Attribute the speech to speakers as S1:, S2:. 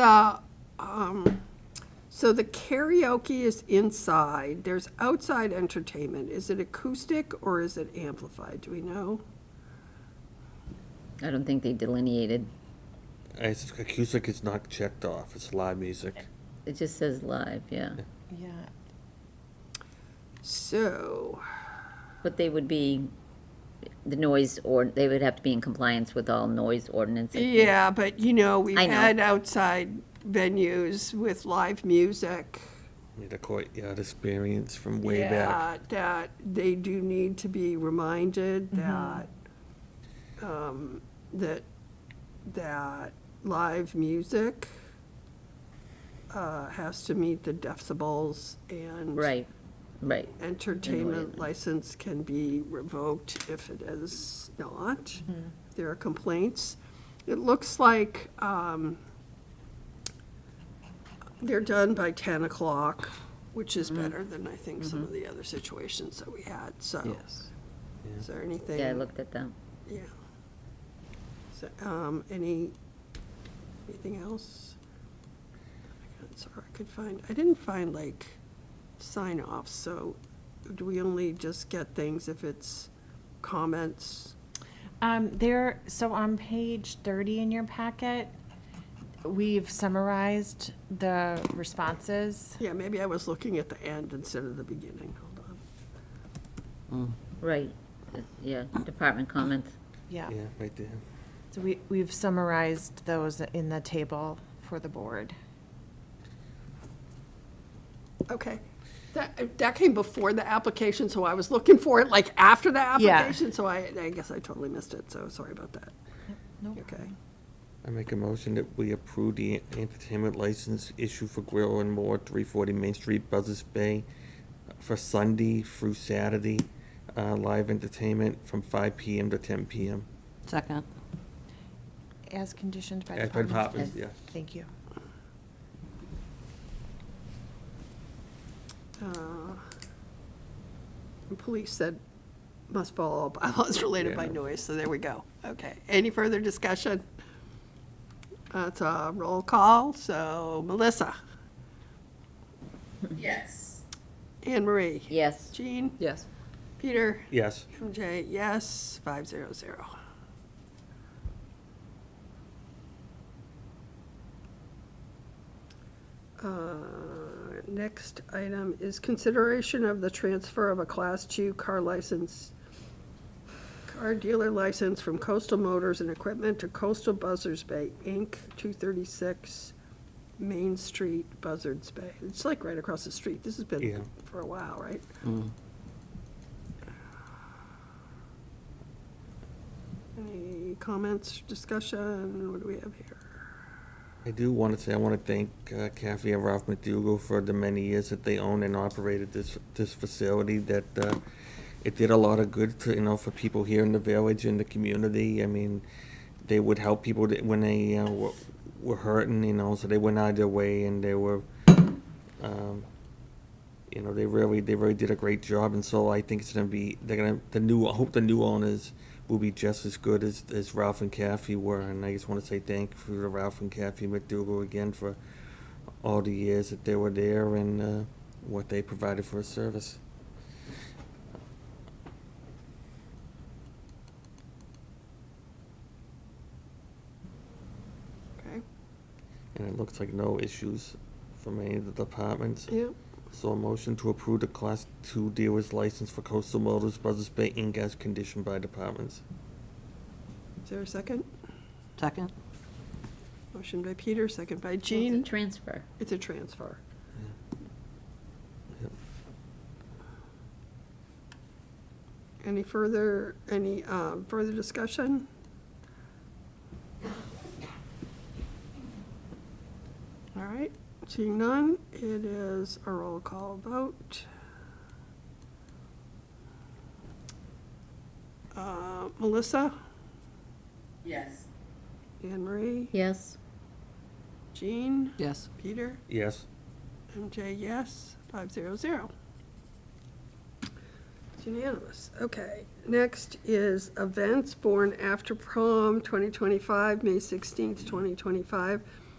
S1: the, um, so the karaoke is inside, there's outside entertainment. Is it acoustic or is it amplified? Do we know?
S2: I don't think they delineated.
S3: It's acoustic is not checked off. It's live music.
S2: It just says live, yeah.
S4: Yeah,
S1: So,
S2: But they would be, the noise, or, they would have to be in compliance with all noise ordinances.
S1: yeah, but you know, we've
S2: I know.
S1: had outside venues with live music.
S3: Need a courtyard experience from way back.
S1: that- That they do need to be reminded that, um, that, that live music uh, has to meet the decibels and.
S2: Right, right.
S1: Entertainment license can be revoked if it is not. There are complaints. It looks like um, they're done by 10 o'clock, which is better than I think some of the other situations that we had, so. Is there anything?
S2: Yeah, I looked at them.
S1: Yeah. So, um, any, anything else? I can't- Sorry, I could find, I didn't find like sign offs, so do we only just get things if it's comments?
S4: um, there, so on page thirty in your packet, we've summarized the responses.
S1: Yeah, maybe I was looking at the end instead of the beginning, hold on.
S2: Right, yeah, department comments.
S4: Yeah,
S3: Yeah, right there.
S4: so we, we've summarized those in the table for the board.
S1: Okay, that, that came before the application, so I was looking for it like after the
S4: Yeah.
S1: application, so I, I guess I totally missed it, so sorry about that.
S4: No
S1: Okay,
S3: I make a motion that we approve the entertainment license issue for Grill and More, three forty Main Street, Buzzards Bay, uh, for Sunday through Saturday, uh, live entertainment from five PM to ten PM.
S5: Second.
S4: As conditioned by
S3: As by
S4: department.
S3: departments,
S2: Yes.
S3: yeah.
S4: Thank you.
S1: uh, and Police said must follow all bylaws related by
S3: Yeah.
S1: noise, so there we go. Okay, any further discussion? That's a roll call, so Melissa,
S6: Yes.
S1: Anne Marie,
S2: Yes,
S1: Jean,
S5: Yes.
S1: Peter,
S3: Yes,
S1: MJ, yes, five zero zero. Uh, Next item is consideration of the transfer of a Class Two car license, car dealer license from Coastal Motors and Equipment to Coastal Buzzards Bay, Inc., two thirty-six Main Street, Buzzards Bay. It's like right across the street. This has
S3: Yeah.
S1: been for a while, right? Any comments, discussion? What do we have here?
S3: I do want to say, I want to thank uh, Kathy and Ralph McDougal for the many years that they owned and operated this, this facility, that uh, it did a lot of good to, you know, for people here in the village and the community. I mean, they would help people that- when they uh, were- were hurting, you know, so they went out of their way and they were, um, you know, they really, they really did a great job. And so I think it's going to be, they're going to, the new, I hope the new owners will be just as good as, as Ralph and Kathy were. And I just want to say thank you to Ralph and Kathy McDougal again for all the years that they were there and uh, what they provided for us service.
S1: Okay,
S3: And it looks like no issues from any of the departments.
S1: yeah,
S3: So a motion to approve the Class 2 dealer's license for Coastal Motors Buzzards Bay Inc. as conditioned by departments.
S1: is there a second?
S5: Second?
S1: Motion by Peter, second by
S2: Gene
S1: Jean.
S2: transfer.
S1: It's a transfer.
S3: Yep.
S1: Any further, any um, further discussion? All right, seeing none, it is a roll call vote. Uh, Melissa,
S6: Yes.
S1: Anne Marie,
S2: Yes,
S1: Jean,
S5: Yes.
S1: Peter?
S3: Yes.
S1: MJ, yes, five zero zero. It's unanimous, okay. Next is events born after prom, twenty twenty-five, May sixteenth, twenty twenty-five.